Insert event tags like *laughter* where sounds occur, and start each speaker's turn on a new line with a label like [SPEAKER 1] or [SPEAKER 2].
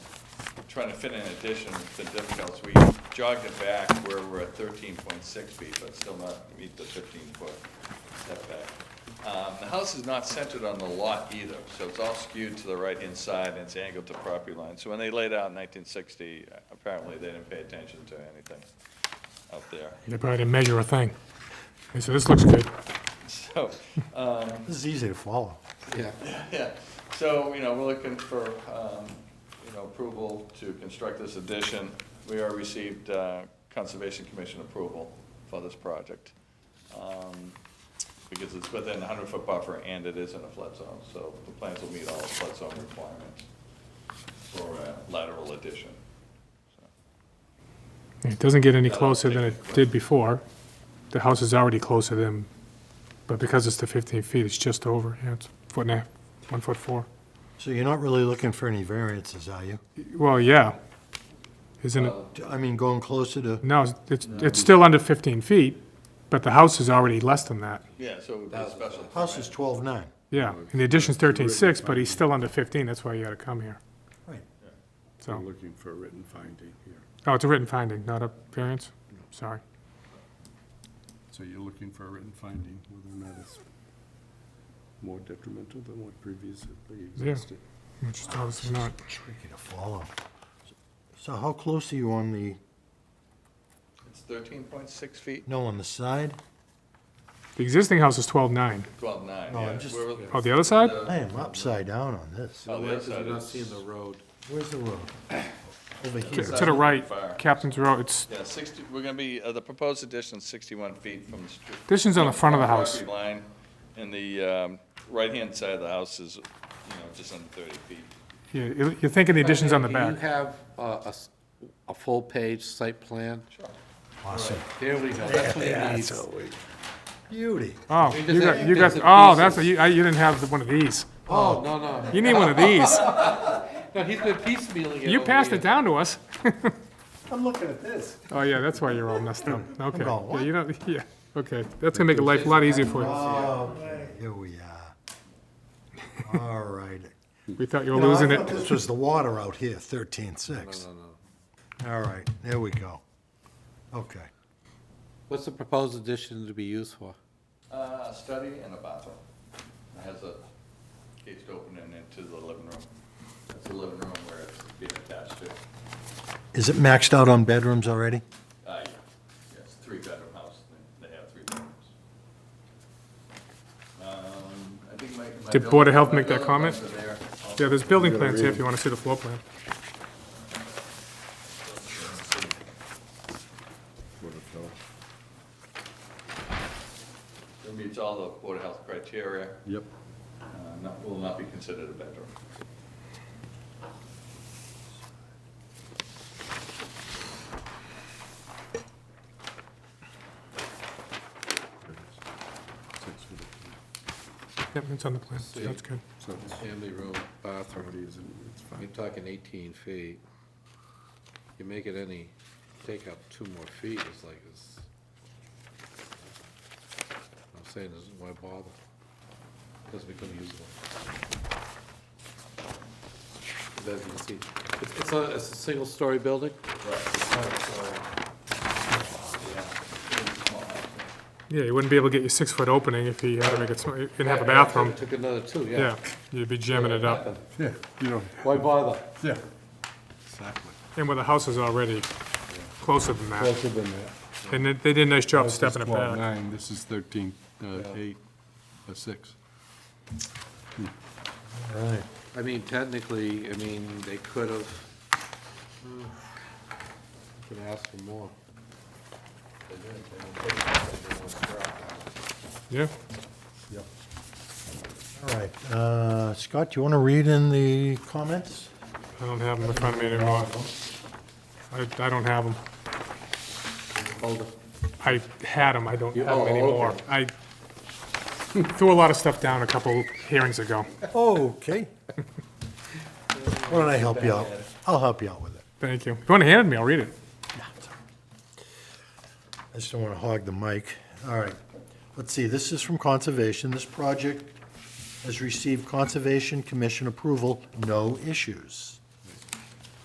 [SPEAKER 1] trying to fit an addition, it's been difficult, so we jogged it back where we're at thirteen point six feet, but still not meet the fifteen foot setback. Um, the house is not centered on the lot either, so it's all skewed to the right-hand side and it's angled to property line. So when they laid out in nineteen sixty, apparently they didn't pay attention to anything up there. *laughs*
[SPEAKER 2] They probably didn't measure a thing. They said, this looks good.
[SPEAKER 1] So, um,
[SPEAKER 3] This is easy to follow.
[SPEAKER 1] Yeah, so, you know, we're looking for, um, you know, approval to construct this addition. We already received uh, Conservation Commission approval for this project. um, Because it's within a hundred-foot buffer and it is in a flood zone, so the plans will meet all the flood zone requirements for a lateral addition.
[SPEAKER 2] It doesn't get any
[SPEAKER 1] That'll
[SPEAKER 2] closer than
[SPEAKER 1] take
[SPEAKER 2] it did before. The house is already closer than, but because it's the 15 feet, it's just over, yeah, it's foot and a half, one foot four.
[SPEAKER 3] So you're not really looking for any variances, are you?
[SPEAKER 2] Well, yeah, isn't it?
[SPEAKER 1] Uh,
[SPEAKER 3] I mean, going closer to,
[SPEAKER 2] No, it's- it's, it's still under 15 feet, but the house is already less than that.
[SPEAKER 1] Yeah, so it would be a special
[SPEAKER 3] house is
[SPEAKER 1] permit.
[SPEAKER 3] 12.9.
[SPEAKER 2] Yeah, and the addition's 13.6, but he's still under 15, that's why you gotta come here.
[SPEAKER 3] Right.
[SPEAKER 4] We're
[SPEAKER 2] So,
[SPEAKER 4] looking for a written finding here.
[SPEAKER 2] oh, it's a written finding, not a variance, sorry.
[SPEAKER 4] So you're looking for a written finding, whether or not it's more detrimental than what previously existed.
[SPEAKER 2] Which is obviously not,
[SPEAKER 3] Tricky to follow. So how close are you on the,
[SPEAKER 1] It's thirteen point six feet,
[SPEAKER 3] no, on the side?
[SPEAKER 2] the existing house is 12.9.
[SPEAKER 1] twelve-nine,
[SPEAKER 3] No,
[SPEAKER 1] yeah.
[SPEAKER 3] I'm just-
[SPEAKER 1] We're-
[SPEAKER 2] Oh, the other side?
[SPEAKER 3] I am upside down on this.
[SPEAKER 1] Oh, the other side
[SPEAKER 4] We're not
[SPEAKER 1] is-
[SPEAKER 4] seeing the road.
[SPEAKER 3] Where's the road? Over
[SPEAKER 2] To
[SPEAKER 3] here.
[SPEAKER 2] to the right,
[SPEAKER 1] Fire.
[SPEAKER 2] Captain's Row, it's,
[SPEAKER 1] Yeah, sixty, we're gonna be, uh, the proposed addition is sixty-one feet from the street.
[SPEAKER 2] addition's on the front of the house.
[SPEAKER 1] Property line, and the, um, right-hand side of the house is, you know, just under thirty feet.
[SPEAKER 2] Yeah, you- You're thinking the addition's on the
[SPEAKER 5] Do you
[SPEAKER 2] back.
[SPEAKER 5] have a, a s- a full-page site plan?
[SPEAKER 3] Awesome.
[SPEAKER 5] There we go, that's what we need.
[SPEAKER 3] Beauty.
[SPEAKER 2] Oh,
[SPEAKER 5] We
[SPEAKER 2] you
[SPEAKER 5] just
[SPEAKER 2] got,
[SPEAKER 5] have
[SPEAKER 2] you got,
[SPEAKER 5] bits and
[SPEAKER 2] oh, that's, what you
[SPEAKER 5] pieces.
[SPEAKER 2] I- you didn't have one of these.
[SPEAKER 5] Oh, no, no,
[SPEAKER 2] You need one of these.
[SPEAKER 5] no, he's been piecemealing it.
[SPEAKER 2] You
[SPEAKER 5] over
[SPEAKER 2] passed it
[SPEAKER 5] here.
[SPEAKER 2] down to us. *laughs*
[SPEAKER 3] I'm looking at this.
[SPEAKER 2] Oh, yeah, that's why you're all messed up. Okay.
[SPEAKER 3] going,
[SPEAKER 2] Yeah, you don't, yeah, okay. That's gonna make life a lot easier for you.
[SPEAKER 3] Okay, here we are. All right.
[SPEAKER 2] We thought you *laughs* were
[SPEAKER 3] You know, I
[SPEAKER 2] losing
[SPEAKER 3] thought
[SPEAKER 2] it.
[SPEAKER 3] This was the water out here, 13.6. All right, there we go. Okay.
[SPEAKER 5] What's the proposed addition to be used for?
[SPEAKER 1] Uh, a study and a bathroom. It has a gated opening into the living room. That's the living room where it's being attached to.
[SPEAKER 3] Is it maxed out on bedrooms already?
[SPEAKER 1] Uh, yeah, yes, three-bedroom house, they they have three bedrooms. Um, I think my. my
[SPEAKER 2] Did Board
[SPEAKER 1] building-
[SPEAKER 2] of Health
[SPEAKER 1] my
[SPEAKER 2] make that
[SPEAKER 1] building
[SPEAKER 2] comment?
[SPEAKER 1] plans are there. I'll
[SPEAKER 2] Yeah, there's building plans here if you wanna see the floor plan.
[SPEAKER 1] It meets all the Board of Health criteria,
[SPEAKER 4] Yep.
[SPEAKER 1] uh, not, will not be considered a bedroom.
[SPEAKER 4] Six feet.
[SPEAKER 2] Yep, it's on the plan, that's good.
[SPEAKER 4] So it's
[SPEAKER 5] Family room, bathroom,
[SPEAKER 4] property isn't, it's
[SPEAKER 5] you're
[SPEAKER 4] fine.
[SPEAKER 5] talking eighteen feet. You make it any, take up two more feet, it's like, it's. I'm saying, this is why bother? Doesn't become usable. As you can see, it's, it's a, it's a single-story building?
[SPEAKER 2] Yeah, you wouldn't be able to get your six-foot opening if you had to make it, sm- you didn't have a bathroom.
[SPEAKER 5] Took another two,
[SPEAKER 2] Yeah,
[SPEAKER 5] yeah.
[SPEAKER 2] you'd be jamming it up.
[SPEAKER 4] Yeah, you know,
[SPEAKER 5] Why bother?
[SPEAKER 4] yeah. Exactly.
[SPEAKER 2] And where the house is already closer than that.
[SPEAKER 4] Closer than that.
[SPEAKER 2] And they they did a nice job
[SPEAKER 4] This is
[SPEAKER 2] stepping it back.
[SPEAKER 4] 12.9, This is thirteen, uh, eight, uh, six.
[SPEAKER 3] All right.
[SPEAKER 5] I mean, technically, I mean, they could have, could ask for more. They didn't, they didn't take it, they didn't scrap it.
[SPEAKER 2] Yeah,
[SPEAKER 3] All right, uh, Scott, you want to read in the comments?
[SPEAKER 2] I don't have them in front of me anymore. I, I don't have them.
[SPEAKER 5] Hold it.
[SPEAKER 2] I had them, I don't
[SPEAKER 5] You-
[SPEAKER 2] have them
[SPEAKER 5] oh,
[SPEAKER 2] anymore.
[SPEAKER 5] okay.
[SPEAKER 2] I threw a lot of stuff down a couple hearings ago.
[SPEAKER 3] Okay. Why don't I help you out? I'll help you out with it.
[SPEAKER 2] Thank you. If you want to hand it to me, I'll read it.
[SPEAKER 3] I just don't want to hog the mic. All right. Let's see, this is from Conservation. This project has received Conservation Commission approval, no issues.